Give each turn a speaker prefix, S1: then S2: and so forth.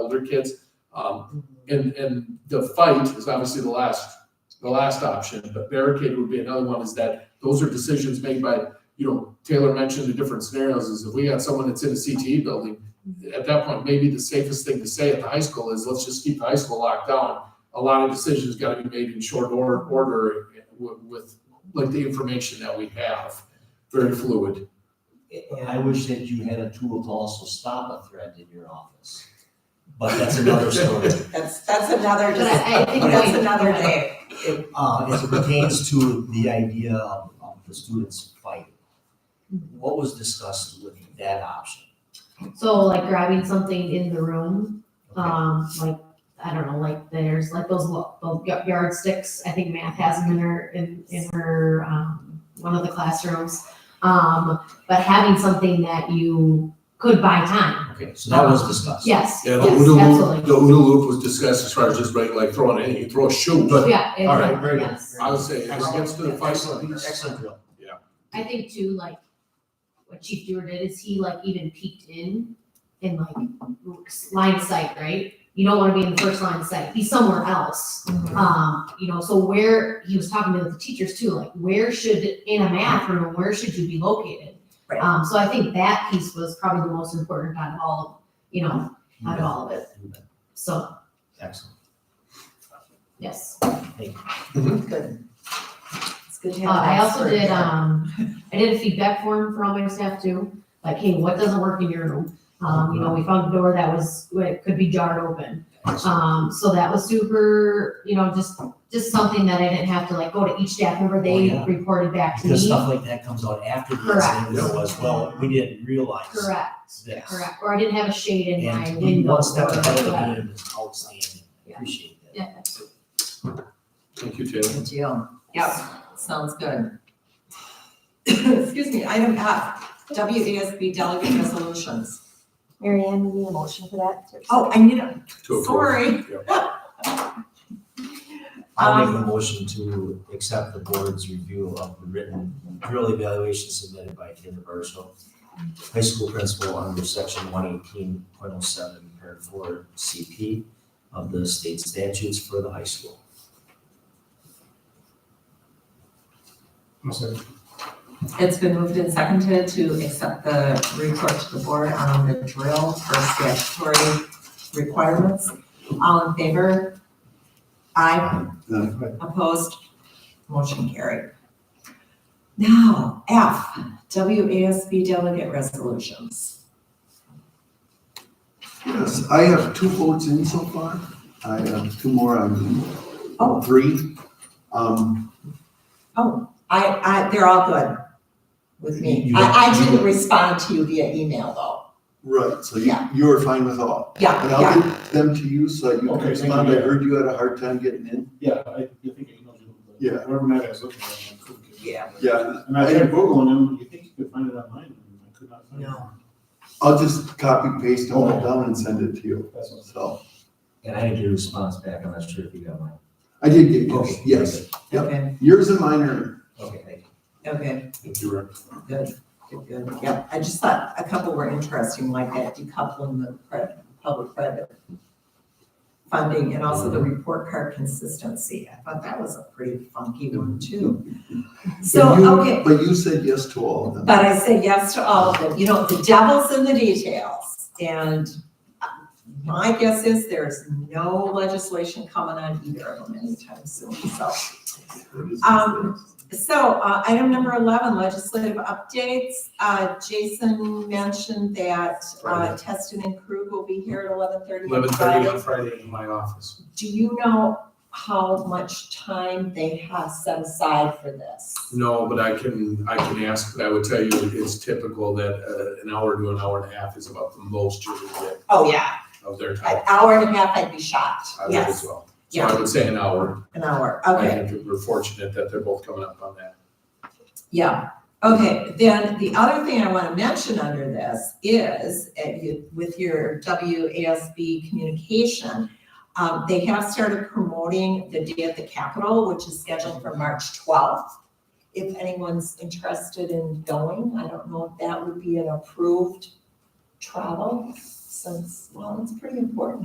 S1: older kids. Um, and, and the fight is obviously the last, the last option, but barricade would be another one is that those are decisions made by, you know, Taylor mentioned the different scenarios is if we got someone that's in a CTE building, at that point, maybe the safest thing to say at the high school is let's just keep the high school locked down. A lot of decisions gotta be made in short order, order with, with like the information that we have, very fluid.
S2: I wish that you had a tool to also stop a threat in your office, but that's another story.
S3: That's, that's another,
S4: But I- I think
S3: that's
S4: we-
S3: another day.
S2: Uh, as it pertains to the idea of, of the students fighting, what was discussed with that option?
S4: So like grabbing something in the room,
S2: Okay.
S4: um, like, I don't know, like there's like those, lo- those y- yardsticks, I think Math has them in her, in, in her, um, one of the classrooms. Um, but having something that you could buy time,
S2: Okay, so that was discussed.
S4: yes,
S1: Yeah,
S4: yes,
S1: the OODA loop, the
S4: absolutely.
S1: OODA loop was discussed as far as just like, like throwing anything, you throw a shoe, but
S4: Yeah,
S1: all right,
S4: exactly,
S2: very good.
S4: yes.
S1: I would say as it gets to the fight.
S2: Excellent, excellent drill.
S4: I think too, like, what Chief Dewar did is he like even peeked in and like line of sight, right? You don't wanna be in the first line of sight, he's somewhere else. Um, you know, so where, he was talking to the teachers too, like, where should, in a math room, where should you be located?
S3: Right.
S4: Um, so I think that piece was probably the most important out of all, of you know, out of all of it,
S2: You bet.
S4: so,
S2: Excellent.
S4: yes.
S3: Good. It's good to have.
S4: Uh,
S3: an
S4: I also
S3: expert
S4: did,
S3: here.
S4: um, I did a feedback form for all my staff too, like, hey, what doesn't work in your room? Um, you know, we found a door that was, it could be jarred open. Um, so that was super, you know, just, just something that I didn't have to like go to each staff member,
S2: Oh,
S4: they
S2: yeah.
S4: reported back to
S2: Because
S4: me.
S2: stuff like that comes out after the
S4: Correct.
S2: incident you know, as well, we didn't realize this.
S4: Correct, correct, or I didn't have a shade in my
S2: And to be
S4: window.
S2: one step
S4: or
S2: ahead of the
S4: whatever.
S2: game is outstanding,
S4: Yeah.
S2: appreciate that.
S4: Yeah.
S1: Thank you, Taylor.
S3: Good deal. Yep, sounds good. Excuse me, item F, WASB delegate resolutions.
S5: Mary Ann, you need a motion for that?
S3: Oh, I need a,
S1: To approve.
S3: sorry.
S2: I'll make the motion to accept the board's review of the written drill evaluation submitted by Taylor Burchill, high school principal under section one eighteen point oh seven, parent four CP of the state statutes for the high school.
S3: It's been moved and seconded to accept the report to the board on the drill for statutory requirements. All in favor? Aye. Opposed? Motion carried. Now, F, WASB delegate resolutions.
S6: Yes, I have two votes in so far. I have two more on, oh, three. Um,
S3: I, I, they're all good with me.
S2: You-
S3: I, I didn't respond to you via email though.
S6: right, so you,
S3: Yeah.
S6: you are fine with all.
S3: Yeah,
S6: And
S3: yeah.
S6: I'll get them to you so that you can
S7: Okay, thank you,
S6: respond. I
S7: yeah.
S6: heard you had a hard time getting in.
S7: Yeah, I, I think I emailed you. but
S6: Yeah.
S7: Wherever that is looking at. I couldn't get it.
S3: Yeah.
S6: Yeah,
S7: And I tried Googling them, you think you could find it online, and I could not find it.
S3: No.
S6: I'll just copy paste them all
S7: Okay.
S6: down and send it to you,
S7: That's what.
S6: so.
S2: And I didn't get a response back, I'm not sure if you got mine.
S6: I did get yours,
S2: Okay,
S6: yes. Yep.
S3: Okay,
S6: Yours and mine are,
S2: Okay, thank you.
S3: okay.
S1: Thank you, Rick.
S3: Good, good, good. Yep, I just thought a couple were interesting, like that decoupling the credit, public credit funding and also the report card consistency. I thought that was a pretty funky one too. So,
S6: but you,
S3: okay,
S6: but you said yes to all of them.
S3: but I say yes to all of them. You know, the devil's in the details. And my guess is there's no legislation coming on either of them anytime soon, so. Um, So, uh, item number eleven, legislative updates. Uh, Jason mentioned that, uh, Teston and Krug will be here at eleven thirty.
S1: Eleven thirty on Friday in my office.
S3: Do you know how much time they have set aside for this?
S1: No, but I can, I can ask, but I would tell you it's typical that uh, an hour to an hour and a half is about the most you would get
S3: Oh, yeah,
S1: of their time.
S3: an hour and a half, I'd be shocked.
S1: I would as
S3: Yes,
S1: well. So
S3: yeah,
S1: I would say an hour.
S3: an hour,
S1: I
S3: okay.
S1: think we're fortunate that they're both coming up on that.
S3: Yeah, okay, then the other thing I want to mention under this is, uh, you- with your WASB communication, um, they have started promoting the Day at the Capitol, which is scheduled for March twelfth. If anyone's interested in going, I don't know if that would be an approved travel, since, well, it's pretty important